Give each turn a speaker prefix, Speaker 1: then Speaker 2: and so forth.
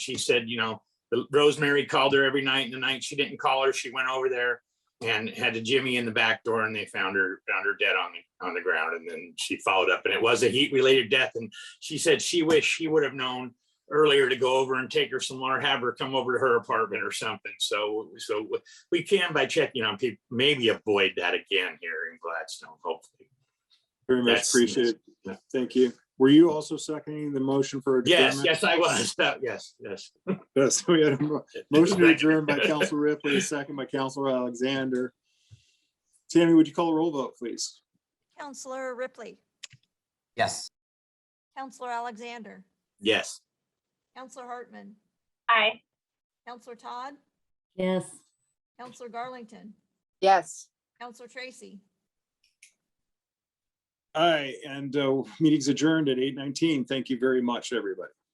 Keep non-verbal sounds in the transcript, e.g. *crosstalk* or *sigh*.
Speaker 1: she said, you know, the- Rosemary called her every night and the night she didn't call her, she went over there and had a Jimmy in the back door and they found her, found her dead on the, on the ground. And then she followed up and it was a heat related death. And she said she wished she would have known earlier to go over and take her somewhere, have her come over to her apartment or something. So, so we can by checking on people, maybe avoid that again here in Gladstone, hopefully.
Speaker 2: Very much
Speaker 1: That's-
Speaker 2: appreciated.
Speaker 1: yeah.
Speaker 2: Thank you. Were you also seconding the motion for
Speaker 1: Yes,
Speaker 2: adjournment?
Speaker 1: yes, I was. *laughs* That- Yes, yes.
Speaker 2: Yes. We had a mo- motion to adjourn by Council Ripley, a second by Council Alexander. Tammy, would you call a roll vote, please?
Speaker 3: Counselor Ripley,
Speaker 4: Yes.
Speaker 3: Counselor Alexander,
Speaker 1: Yes.
Speaker 3: Counselor Hartman,
Speaker 5: Aye.
Speaker 3: Counselor Todd,
Speaker 6: Yes.
Speaker 3: Counselor Garlington,
Speaker 7: Yes.
Speaker 3: Counselor Tracy.
Speaker 2: Aye, and uh, meeting's adjourned at eight nineteen. Thank you very much, everybody.